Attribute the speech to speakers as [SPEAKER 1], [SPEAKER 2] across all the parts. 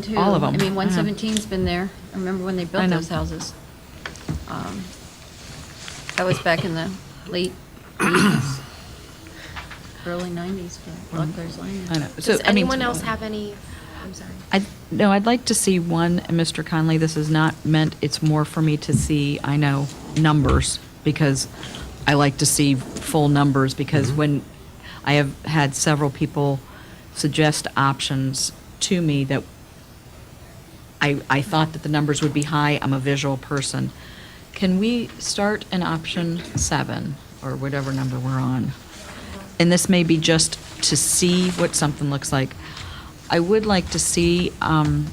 [SPEAKER 1] too.
[SPEAKER 2] All of
[SPEAKER 1] I
[SPEAKER 2] 'em.
[SPEAKER 1] mean,
[SPEAKER 2] I know.
[SPEAKER 1] 117's been there. I remember when they
[SPEAKER 2] I
[SPEAKER 1] built
[SPEAKER 2] know.
[SPEAKER 1] those houses. Um, That was back in the late 80s, early 90s, but Buckler's Lane.
[SPEAKER 2] Mm. I know. So,
[SPEAKER 3] Does
[SPEAKER 2] I mean-
[SPEAKER 3] anyone else have any, I'm sorry.
[SPEAKER 2] I, no, I'd like to see one, and Mr. Conley, this is not meant, it's more for me to see, I know, numbers, because I like to see full numbers, because when, I have had several people suggest options to me that I, I thought that the numbers would be high, I'm a visual person. Can we start an option seven, or whatever number we're on? And this may be just to see what something looks like. I would like to see um,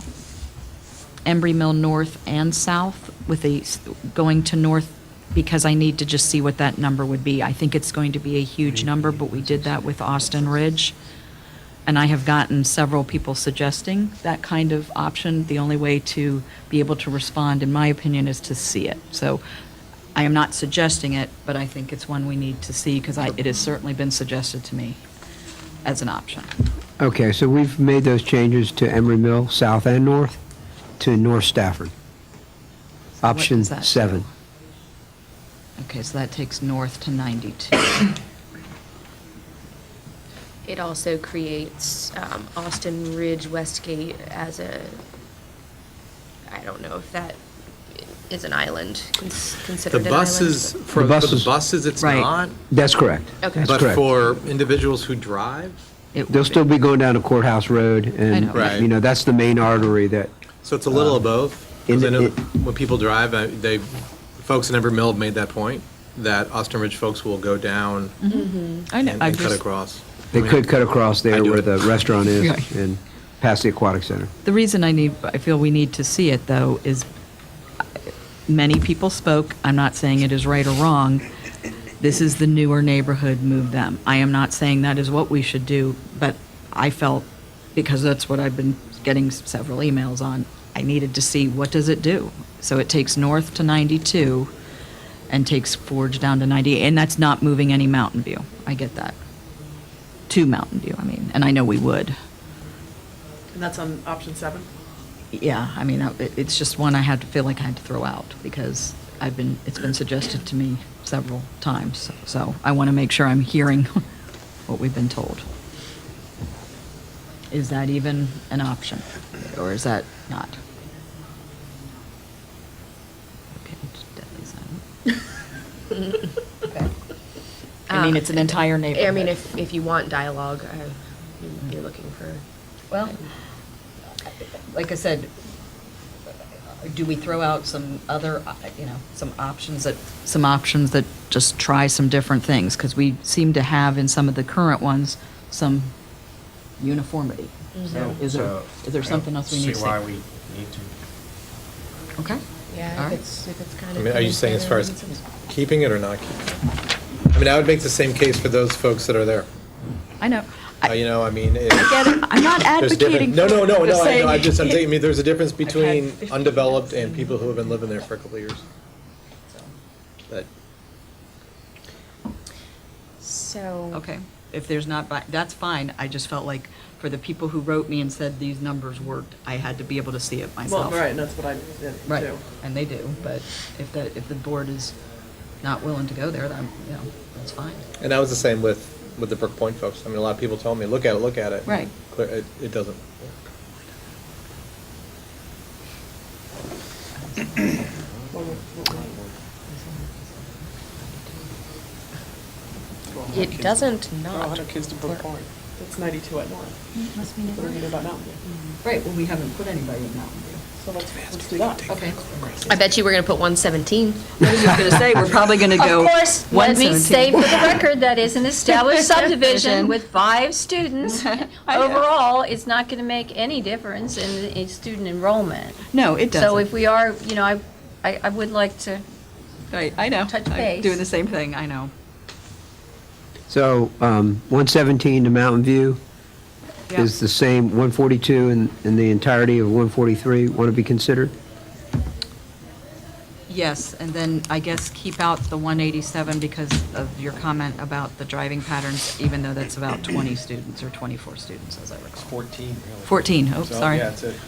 [SPEAKER 2] Embry Mill North and South with a, s- going to North, because I need to just see what that number would be. I think it's going to be a huge number, but we did that with Austin Ridge. And I have gotten several people suggesting that kind of option. The only way to be able to respond, in my opinion, is to see it. So I am not suggesting it, but I think it's one we need to see because I, it has certainly been suggested to me as an option.
[SPEAKER 4] Okay, so we've made those changes to Emery Mill, south and north, to North Stafford.
[SPEAKER 2] what
[SPEAKER 4] Option
[SPEAKER 2] does that do?
[SPEAKER 4] seven.
[SPEAKER 2] Okay, so that takes north to 92.
[SPEAKER 3] It also creates um, Austin Ridge Westgate as a, I don't know if that is an island, cons-
[SPEAKER 5] The
[SPEAKER 3] considered an island.
[SPEAKER 5] buses, for
[SPEAKER 4] The
[SPEAKER 5] for the
[SPEAKER 4] buses-
[SPEAKER 5] buses, it's
[SPEAKER 2] Right.
[SPEAKER 5] not,
[SPEAKER 4] That's correct.
[SPEAKER 3] Okay.
[SPEAKER 4] That's
[SPEAKER 5] but
[SPEAKER 4] correct.
[SPEAKER 5] for individuals who drive,
[SPEAKER 2] It would
[SPEAKER 4] They'll still be going down to Courthouse Road,
[SPEAKER 2] know.
[SPEAKER 4] and,
[SPEAKER 5] Right.
[SPEAKER 4] you know, that's the main artery that,
[SPEAKER 5] so it's a little of both.
[SPEAKER 4] Uh, in
[SPEAKER 5] Because I
[SPEAKER 4] the-
[SPEAKER 5] know
[SPEAKER 4] it-
[SPEAKER 5] when people drive, I- they, folks in Everett Mill have made that point, that Austin Ridge folks will go down
[SPEAKER 2] I
[SPEAKER 5] and
[SPEAKER 2] know, Mm-hmm. I
[SPEAKER 5] and cut
[SPEAKER 2] just,
[SPEAKER 5] across.
[SPEAKER 4] they
[SPEAKER 5] I mean,
[SPEAKER 4] could cut across
[SPEAKER 5] I
[SPEAKER 4] there
[SPEAKER 5] do
[SPEAKER 4] where
[SPEAKER 5] it.
[SPEAKER 4] the restaurant is
[SPEAKER 2] Right.
[SPEAKER 4] and past the Aquatic Center.
[SPEAKER 2] the reason I need, I feel we need to see it though is many people spoke, I'm not saying it is right or wrong. This is the newer neighborhood, move them. I am not saying that is what we should do, but I felt, because that's what I've been getting s- several emails on, I needed to see what does it do? So it takes north to 92 and takes Forge down to 90, and that's not moving any Mountain View. I get that. To Mountain View, I mean, and I know we would.
[SPEAKER 6] And that's on option seven?
[SPEAKER 2] Yeah, I mean, I- it- it's just one I had to feel like I had to throw out because I've been, it's been suggested to me several times. So I want to make sure I'm hearing what we've been told. Is that even an option or is that not? Okay, it's deadly silent. I mean, it's an entire
[SPEAKER 3] um, I mean,
[SPEAKER 2] neighborhood.
[SPEAKER 3] if, if you want dialogue, uh, you- you're looking for.
[SPEAKER 2] Well, like I said, do we throw out some other, uh, you know, some options that? Some options that just try some different things, because we seem to have in some of the current ones, some uniformity. So is there,
[SPEAKER 7] So,
[SPEAKER 2] is there
[SPEAKER 7] I
[SPEAKER 2] something
[SPEAKER 7] don't
[SPEAKER 2] else we need to say?
[SPEAKER 7] See why we need to.
[SPEAKER 2] Okay. All
[SPEAKER 3] Yeah,
[SPEAKER 2] right.
[SPEAKER 3] if it's, if it's kind
[SPEAKER 5] I
[SPEAKER 3] of.
[SPEAKER 5] mean, are you saying as far as keeping it or not keeping it? I mean, I would make the same case for those folks that are there.
[SPEAKER 2] I know.
[SPEAKER 5] Uh,
[SPEAKER 2] I
[SPEAKER 5] You know, I mean, it-
[SPEAKER 2] get it. I'm not
[SPEAKER 5] there's a
[SPEAKER 2] advocating.
[SPEAKER 5] difference. No, no, no,
[SPEAKER 2] for-
[SPEAKER 5] no, I
[SPEAKER 2] saying-
[SPEAKER 5] know, I just, I'm saying, I mean, there's a difference between
[SPEAKER 2] 15
[SPEAKER 5] undeveloped and people who have been living there for a couple of years. But
[SPEAKER 3] So.
[SPEAKER 2] Okay, if there's not, bi- that's fine. I just felt like for the people who wrote me and said these numbers worked, I had to be able to see it
[SPEAKER 6] Well,
[SPEAKER 2] myself.
[SPEAKER 6] right, and that's what I did too.
[SPEAKER 2] Right, and they do, but if the, if the board is not willing to go there, then, you know, that's fine.
[SPEAKER 5] And that was the same with, with the Brook Point folks. I mean, a lot of people told me, look at it, look at it.
[SPEAKER 2] Right.
[SPEAKER 5] Clear, it, it doesn't work.
[SPEAKER 3] It doesn't
[SPEAKER 6] Our
[SPEAKER 3] not.
[SPEAKER 6] hundred kids to Brook
[SPEAKER 3] work.
[SPEAKER 6] Point. It's ninety-two at North.
[SPEAKER 2] Must be Mm-hmm.
[SPEAKER 6] What do we do about Mountain View?
[SPEAKER 2] Right, well, we haven't put anybody in Mountain View.
[SPEAKER 6] So let's, let's do that.
[SPEAKER 2] Okay.
[SPEAKER 3] I bet you we're going to put 117.
[SPEAKER 2] I was just gonna say, we're probably gonna go.
[SPEAKER 1] Of course, let me
[SPEAKER 2] 117.
[SPEAKER 1] say for the record, that is an established subdivision with five students. Overall, it's not going to make any difference in, in student enrollment.
[SPEAKER 2] No, it doesn't.
[SPEAKER 1] So if we are, you know, I, I I would like to,
[SPEAKER 2] Right, I know.
[SPEAKER 1] touch
[SPEAKER 2] I'm
[SPEAKER 1] base.
[SPEAKER 2] Doing the same thing, I know.
[SPEAKER 4] So, um, 117 to Mountain View is the same, 142 and, and the entirety of 143 want to be considered?
[SPEAKER 2] Yes, and then I guess keep out the 187 because of your comment about the driving patterns, even though that's about 20 students or 24 students, as I recall.
[SPEAKER 7] Fourteen, really.
[SPEAKER 2] 14, oh,
[SPEAKER 7] So,
[SPEAKER 2] sorry.
[SPEAKER 7] Yeah, it's a